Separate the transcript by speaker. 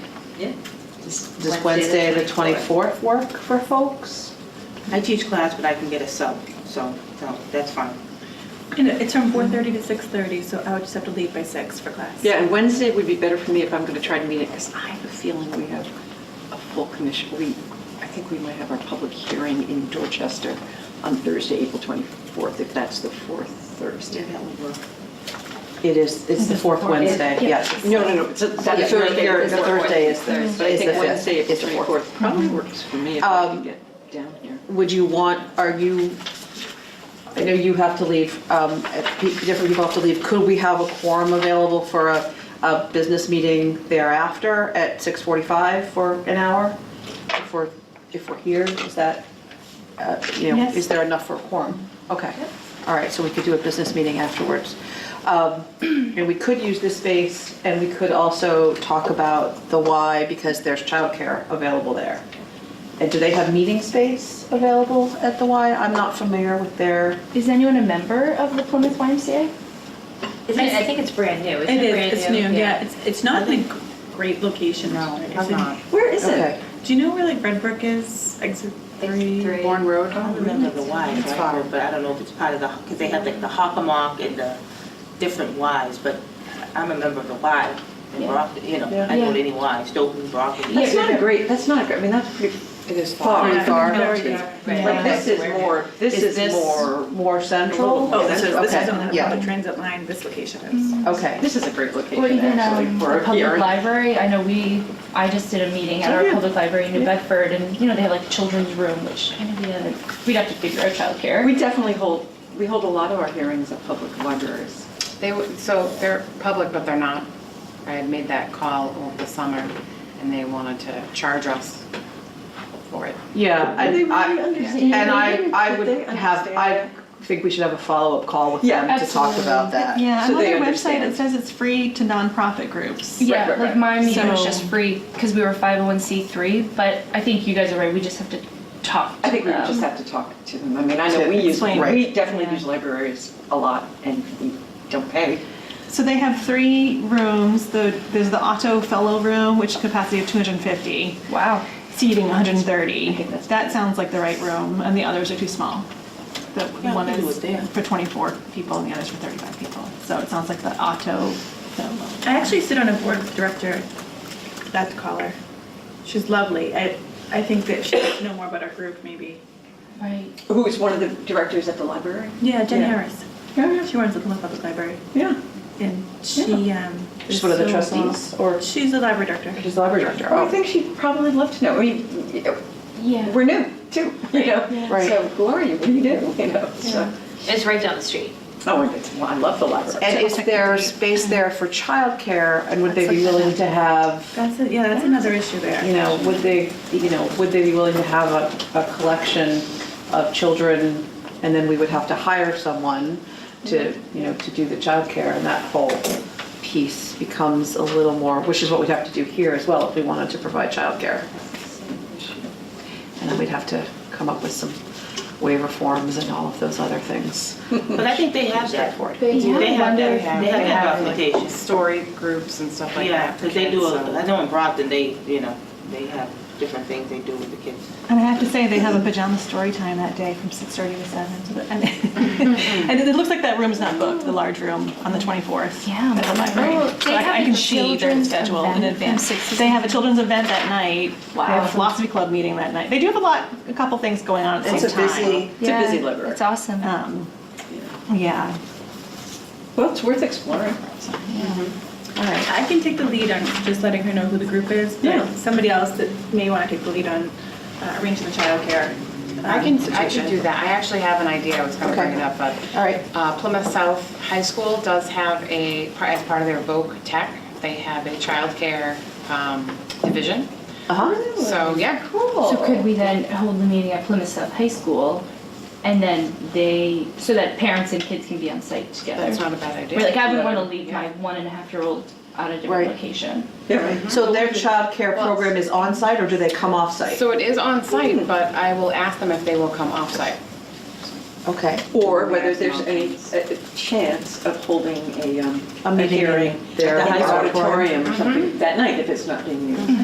Speaker 1: Yeah.
Speaker 2: Does Wednesday, the 24th work for folks?
Speaker 3: I teach class, but I can get a sub, so, so that's fine.
Speaker 4: You know, it's from 4:30 to 6:30, so I would just have to leave by six for class.
Speaker 5: Yeah, and Wednesday would be better for me if I'm going to try to meet it, because I have a feeling we have a full commission. We, I think we might have our public hearing in Dorchester on Thursday, April 24th, if that's the fourth Thursday.
Speaker 3: That would work.
Speaker 2: It is, it's the fourth Wednesday,
Speaker 1: Yeah.
Speaker 2: yes.
Speaker 5: No, no, no, it's a-
Speaker 1: Yeah,
Speaker 5: that Thursday
Speaker 1: Thursday
Speaker 5: or
Speaker 1: is
Speaker 2: The
Speaker 1: the
Speaker 5: Thursday.
Speaker 1: fourth.
Speaker 2: Thursday is,
Speaker 1: Thursday.
Speaker 2: is
Speaker 5: Mm-hmm. But I
Speaker 2: the
Speaker 5: think
Speaker 2: fifth.
Speaker 5: Wednesday, April
Speaker 2: It's the fourth. Mm-hmm.
Speaker 5: 24th, probably works for me if I
Speaker 2: Um,
Speaker 5: can get down here.
Speaker 2: Would you want, are you, I know you have to leave, um, pe- different people have to leave. Could we have a quorum available for a, a business meeting thereafter at 6:45 for an hour? If we're, if we're here, is that, uh, you know,
Speaker 4: Yes.
Speaker 2: is there enough for a quorum? Okay, all right, so we could do a business meeting afterwards. Um, And we could use this space, and we could also talk about the why, because there's childcare available there. And do they have meeting space available at the Y? I'm not familiar with their,
Speaker 6: Is anyone a member of the Plymouth YMCA?
Speaker 1: Isn't it, I think it's brand new, isn't it?
Speaker 4: It is,
Speaker 1: brand
Speaker 4: it's new, yeah, it's, it's not in a g- great location.
Speaker 3: No,
Speaker 4: It's
Speaker 3: it's
Speaker 4: in-
Speaker 3: not.
Speaker 4: Where is
Speaker 2: Okay.
Speaker 4: it? Do you know where like Red Brick is, exit three?
Speaker 1: three.
Speaker 4: Bourne Road?
Speaker 3: I don't remember the Ys, it's far, but I don't know if it's part of the, because they have like the Hockamock and the different Ys, but I'm a member of the Y. in
Speaker 6: Yeah.
Speaker 3: Brock- You know, I
Speaker 6: Yeah.
Speaker 3: know any Y, Stoughton, Brockton.
Speaker 5: That's not a great, that's not, a great. I mean, that's pretty
Speaker 2: it is
Speaker 5: far.
Speaker 2: far, far.
Speaker 4: Very far.
Speaker 1: Right.
Speaker 5: Like, this is more, this is more,
Speaker 2: More central?
Speaker 4: Oh, this is, this
Speaker 2: Okay,
Speaker 4: is on the
Speaker 2: yeah.
Speaker 4: public transit line, this location is.
Speaker 2: Okay,
Speaker 5: this is a great
Speaker 6: Or
Speaker 5: location,
Speaker 6: even
Speaker 5: actually,
Speaker 6: um,
Speaker 5: for
Speaker 6: the
Speaker 5: a
Speaker 6: public
Speaker 5: hearing.
Speaker 6: library? I know we, I just did a meeting at
Speaker 4: Oh,
Speaker 6: our
Speaker 4: yeah.
Speaker 6: public library in New
Speaker 4: Yeah.
Speaker 6: Bedford, and you know they have like children's room, which kind of we had- we'd have to figure out childcare.
Speaker 5: We definitely hold, we hold a lot of our hearings at public libraries.
Speaker 7: They, w- so they're public, but they're not. I had made that call over the summer, and they wanted to charge us for it.
Speaker 2: yeah. I- I-
Speaker 6: understand?
Speaker 2: And I, I would have, I think we should have a follow-up call with
Speaker 5: Yeah,
Speaker 2: them to talk
Speaker 6: absolutely.
Speaker 2: about that.
Speaker 8: Yeah,
Speaker 5: So
Speaker 8: and on
Speaker 5: they
Speaker 8: their website,
Speaker 5: understand.
Speaker 8: it says it's free to nonprofit groups.
Speaker 6: yeah,
Speaker 5: Right, right,
Speaker 6: like
Speaker 5: right.
Speaker 6: my meeting was
Speaker 8: So-
Speaker 6: just free because we were 501c3, but I think you guys are right. We just have to talk.
Speaker 5: I think we
Speaker 6: to them.
Speaker 5: would just have to talk Um, to them. I mean, I know we use,
Speaker 8: Explain.
Speaker 5: we
Speaker 2: Right.
Speaker 5: definitely use libraries a lot and we don't pay.
Speaker 8: So they have three rooms. The, there's the Otto Fellow Room, which capacity of 250,
Speaker 6: Wow.
Speaker 8: seating 130.
Speaker 6: think that's-
Speaker 8: That sounds like the right room, and the others are too small. The
Speaker 3: Yeah, I
Speaker 8: one
Speaker 3: think it was
Speaker 8: is
Speaker 3: there.
Speaker 8: for 24 people, and the other's for 35 people. So it sounds like the Otto Fellow.
Speaker 4: I actually sit on a board with director, that caller. She's lovely. I, I think that she should know more about our group, maybe.
Speaker 6: Right.
Speaker 5: Who is one of the directors at the library?
Speaker 4: Yeah, Jen
Speaker 5: Yeah.
Speaker 4: Harris. She runs the Plymouth Public Library,
Speaker 5: Yeah.
Speaker 4: and she, um.
Speaker 2: Just
Speaker 4: is
Speaker 2: one of the
Speaker 4: so-
Speaker 2: trustees, or
Speaker 4: She's the library director.
Speaker 2: just the library director?
Speaker 5: Well, I
Speaker 2: Oh,
Speaker 5: think she'd probably love to know. I mean,
Speaker 6: Yeah.
Speaker 5: we're new too, you know?
Speaker 2: Right.
Speaker 5: So who are you? What do you do? You know, so.
Speaker 1: It's right down the street.
Speaker 5: Oh, and it's, well, I love the library.
Speaker 2: And is there space there for childcare, and would they be willing to have
Speaker 4: That's, a- yeah, that's another issue there.
Speaker 2: you know, would they, you know, would they be willing to have a, a collection of children? And then we would have to hire someone to, you know, to do the childcare and that whole piece becomes a little more, which is what we'd have to do here as well if we wanted to provide childcare. And then we'd have to come up with some waiver forms and all of those other things.
Speaker 3: But I think they have that.
Speaker 2: for it.
Speaker 6: They do.
Speaker 3: They have
Speaker 6: wonder
Speaker 3: that,
Speaker 6: if
Speaker 3: they have that documentation.
Speaker 7: Story groups and stuff like that.
Speaker 3: Yeah, because they
Speaker 7: for
Speaker 3: do,
Speaker 7: kids,
Speaker 3: a-
Speaker 7: so-
Speaker 3: I know in Brockton, they, you know, they have different things they do with the kids.
Speaker 8: And I have to say, they have a pajama story time that day from 6:30 to 7. So that- And and it looks like that room's not booked, the large room on the 24th.
Speaker 6: Yeah.
Speaker 8: At the library.
Speaker 6: Oh,
Speaker 8: So
Speaker 6: they
Speaker 8: I-
Speaker 6: have
Speaker 8: I can
Speaker 6: a
Speaker 8: see their
Speaker 6: children's
Speaker 8: schedule in
Speaker 6: event from
Speaker 8: advance.
Speaker 6: 6 to
Speaker 8: They have a children's event that night. They have
Speaker 6: Wow.
Speaker 8: a philosophy club meeting that night. They do have a lot, a couple things going on at the
Speaker 5: It's
Speaker 8: same
Speaker 5: a
Speaker 8: time.
Speaker 5: busy, it's a busy library.
Speaker 6: It's awesome.
Speaker 8: Um, Yeah.
Speaker 5: Well, it's worth exploring.
Speaker 8: All right.
Speaker 4: I can take the lead on just letting her know who the group is,
Speaker 5: Yeah.
Speaker 4: but somebody else that may want to take the lead on uh, arranging the childcare.
Speaker 7: I
Speaker 4: um,
Speaker 7: can, I
Speaker 4: situation.
Speaker 7: can do that. I actually have an idea. I was going to bring
Speaker 2: Okay.
Speaker 7: it up, but.
Speaker 2: All right.
Speaker 7: Uh, Plymouth South High School does have a, par- as part of their Voc Tech, they have a childcare um, division.
Speaker 2: Uh-huh.
Speaker 7: So, yeah.
Speaker 6: So could we then hold the meeting at Plymouth South High School, and then they, so that parents and kids can be on site together?
Speaker 7: That's not a bad idea.
Speaker 6: We're like, I wouldn't want to leave my one and a half year old at a different
Speaker 2: Right.
Speaker 6: location.
Speaker 5: Yeah.
Speaker 2: So their childcare program is on site, or do they come off-site?
Speaker 7: So it is on site, but I will ask them if they will come off site.
Speaker 2: Okay.
Speaker 5: Or whether there's any a- a chance of holding a, um,
Speaker 2: A
Speaker 5: a
Speaker 2: meeting
Speaker 5: hearing at
Speaker 2: there.
Speaker 5: the
Speaker 2: Yeah.
Speaker 5: Mm-hmm. auditorium or something that night if it's not being used.